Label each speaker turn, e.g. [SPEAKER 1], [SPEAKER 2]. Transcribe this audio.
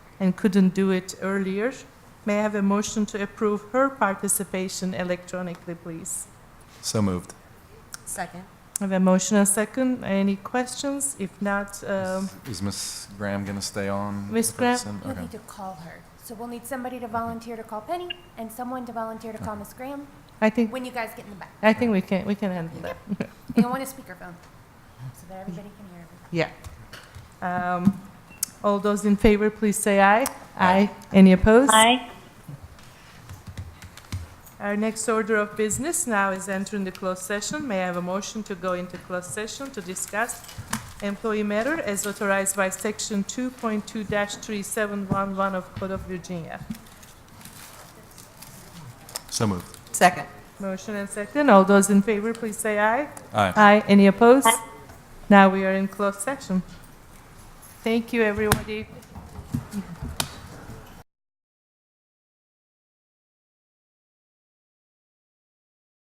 [SPEAKER 1] and couldn't do it earlier. May I have a motion to approve her participation electronically, please?
[SPEAKER 2] So moved.
[SPEAKER 3] Second.
[SPEAKER 1] I have a motion and second. Any questions? If not, um,
[SPEAKER 2] Is- Is Ms. Graham going to stay on?
[SPEAKER 1] Ms.
[SPEAKER 2] with
[SPEAKER 1] Graham?
[SPEAKER 2] us? And-
[SPEAKER 3] You'll
[SPEAKER 2] okay.
[SPEAKER 3] need to call her. So we'll need somebody to volunteer to call Penny and someone to volunteer to call Miss Graham
[SPEAKER 1] I think,
[SPEAKER 3] when you guys get in the back.
[SPEAKER 1] I think we can, we can handle that.
[SPEAKER 3] You'll want a speakerphone so that everybody can hear everything.
[SPEAKER 1] Yeah. Um, All those in favor, please say aye.
[SPEAKER 2] Aye.
[SPEAKER 1] Any opposed?
[SPEAKER 4] Aye.
[SPEAKER 1] Our next order of business now is entering the closed session. May I have a motion to go into closed session to discuss employee matter as authorized by Section 2.2-3711 of Code of Virginia?
[SPEAKER 2] So moved.
[SPEAKER 1] Second. Motion and second. All those in favor, please say aye.
[SPEAKER 2] Aye.
[SPEAKER 1] Aye. Any opposed? Now we are in closed session. Thank you, everybody.